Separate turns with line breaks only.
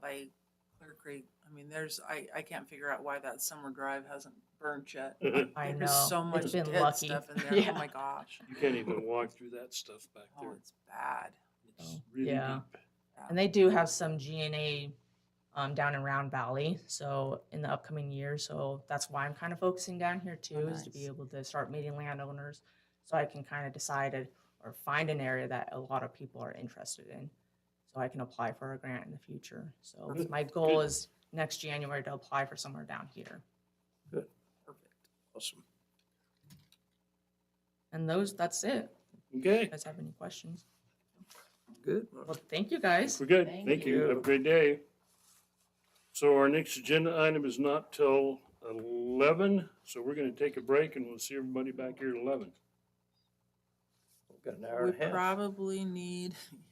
concrete. I mean, there's, I, I can't figure out why that summer drive hasn't burned yet.
You
I know.
There's so much
it's been
dead
lucky.
stuff in there.
Yeah.
Oh my gosh.
can't even walk through that stuff back
Oh,
there.
it's bad.
It's
Oh,
really
yeah.
deep.
And they do have some GNA um, down in Round Valley, so in the upcoming year. So that's why I'm kind of focusing down here too, is to be
nice.
able to start meeting landowners, so I can kind of decide it- or find an area that a lot of people are interested in, so I can apply for a grant in the future. So
Perfect.
my goal
Good.
is next January to apply for somewhere down here.
Perfect.
Awesome.
And those, that's it. If you
Okay,
guys have any questions?
Good.
Well, thank you guys.
we're good.
Thank
Thank you. Have a
you.
great day. So our next agenda item is not till eleven, so we're gonna take a break and we'll see everybody back here at eleven.
We've got an hour
We
and a half.
probably need,